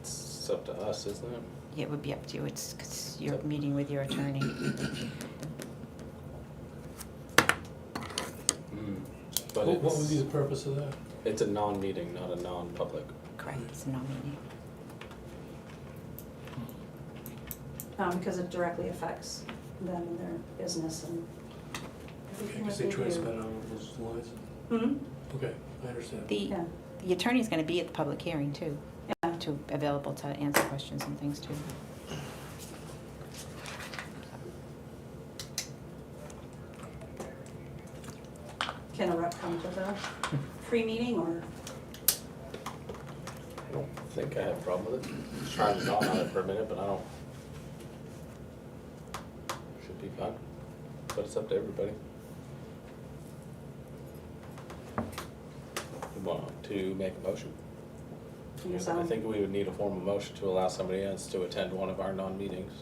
It's up to us, isn't it? It would be up to you, it's, because you're meeting with your attorney. But What what would be it's, the purpose of that? it's a non-meeting, not a non-public. Correct, it's a non-meeting. um, because it directly affects them and their business and everything Because that they they do. transmitted on those lines? Hmm, Okay, I understand. The, yeah, the attorney's gonna be at the public hearing too, yeah, to, available to answer questions and things too. can a rep come to the pre-meeting or, I don't think I have a problem with it. Just Trying to not on it for a minute, but I don't. Should be fine, but it's up to everybody. You Want to make a motion? Yes, I I'll- think we would need a formal motion to allow somebody else to attend one of our non-meetings.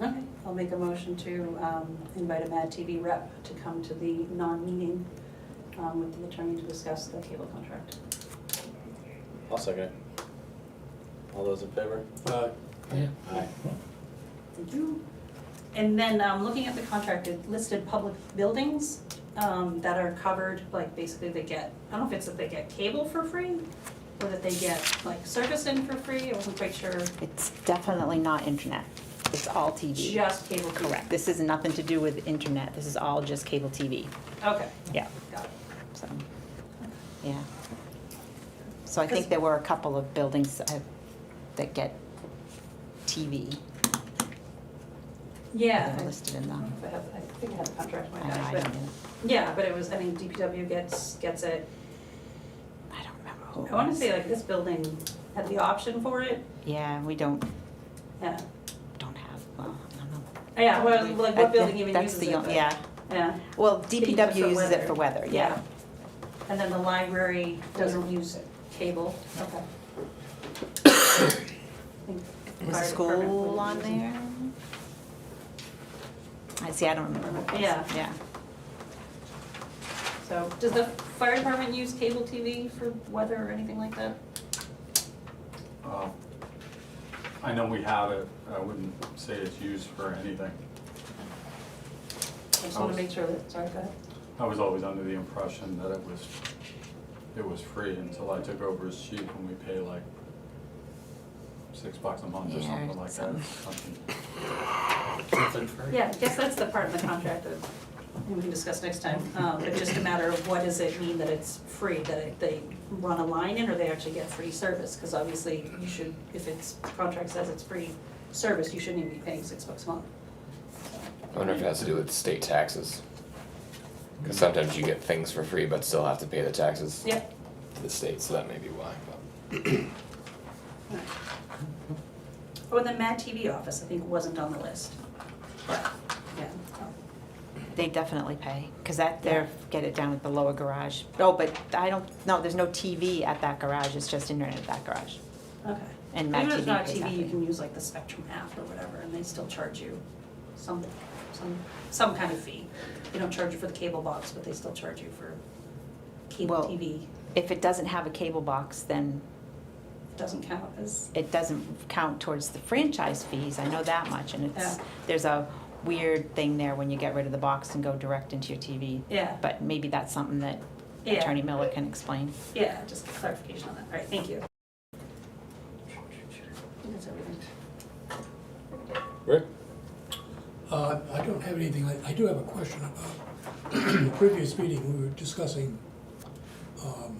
okay, I'll make a motion to, um, invite a Mad TV rep to come to the non-meeting, um, with the attorney to discuss the cable contract. I'll second it. All those in favor? Uh, Aye. Thank you. And then, um, looking at the contract, it listed public buildings, um, that are covered, like, basically they get, I don't know if it's that they get cable for free, or that they get, like, service in for free, I wasn't quite sure, It's definitely not internet, it's all TV. just cable fee. Correct, this has nothing to do with internet, this is all just cable TV, Okay, yeah, got it. so, yeah. So I think there were a couple of buildings uh, that get TV Yeah. that are listed in I don't know them. if I have, I think I have the contract in my I know, I bag, don't, but, yeah, but it was, I think DPW gets, gets it, I don't remember who it I wanna was. say like this building had the option for it, Yeah, we don't, yeah, don't have, well, I don't know. yeah, well, like I what think building even that's uses the it, on- but- Yeah, Yeah. well, uses it DPW for uses it for weather. weather, yeah. And then the library doesn't use cable, okay. Was the school on there? I see, I don't remember what it was. Yeah. Yeah, So, does the fire department use cable TV for weather or anything like that? Uh, I know we have it, I wouldn't say it's used for anything. I just wanna make sure that, sorry, go ahead. I was always under the impression that it was, it was free until I took over as chief and we pay like six bucks a month or Yeah, something like that. some- something. Yeah, I guess that's the part in the contract that we can discuss next time, um, but just a matter of what does it mean that it's free, that it- they run a line in or they actually get free service? Cause obviously you should, if it's, contract says it's free service, you shouldn't even be paying six bucks a month. I wonder if it has to do with state taxes. Because sometimes you get things for free but still have to pay the taxes Yeah. to the state, so that may be why. But. Oh, and the Mad TV office, I think, wasn't on the list. Yeah. they definitely pay, because that, they're, get it down at the lower garage. Oh, but I don't, no, there's no TV at that garage, it's just internet at that garage. Okay. And Mad Even if it's TV not pays TV, you nothing. can use like the Spectrum app or whatever, and they still charge you some, some, some kind of fee. They don't charge you for the cable box, but they still charge you for cable Well- TV. If it doesn't have a cable box, then It Doesn't count as, it doesn't count towards the franchise fees, I know that much, and it's, Yeah. there's a weird thing there when you get rid of the box and go direct into your TV. yeah, But maybe that's something that Yeah. Attorney Miller can explain. yeah, just clarification on that. All right, thank you. I think that's everything. Rick? Uh, I don't have anything, I- I do have a question about, in the previous meeting, we were discussing um,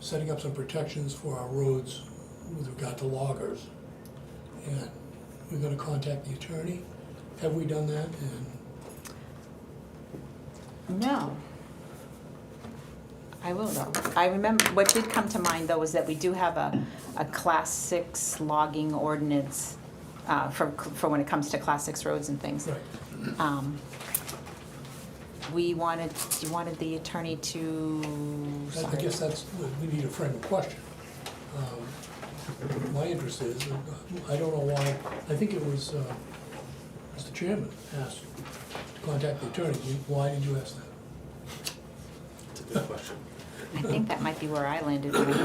setting up some protections for our roads with regard to loggers. And we're gonna contact the attorney. Have we done that? And No. I will though. I remember, what did come to mind though was that we do have a, a class six logging ordinance uh, for, for when it comes to class six roads and things. Right. Um, We wanted, you wanted the attorney to, I- I sorry. guess that's, we- we need to frame a question. Um, My interest is, uh, I don't know why, I think it was, uh, Mr. Chairman asked to contact the attorney. Why did you ask that? It's a good question. I think that might be where I landed when I got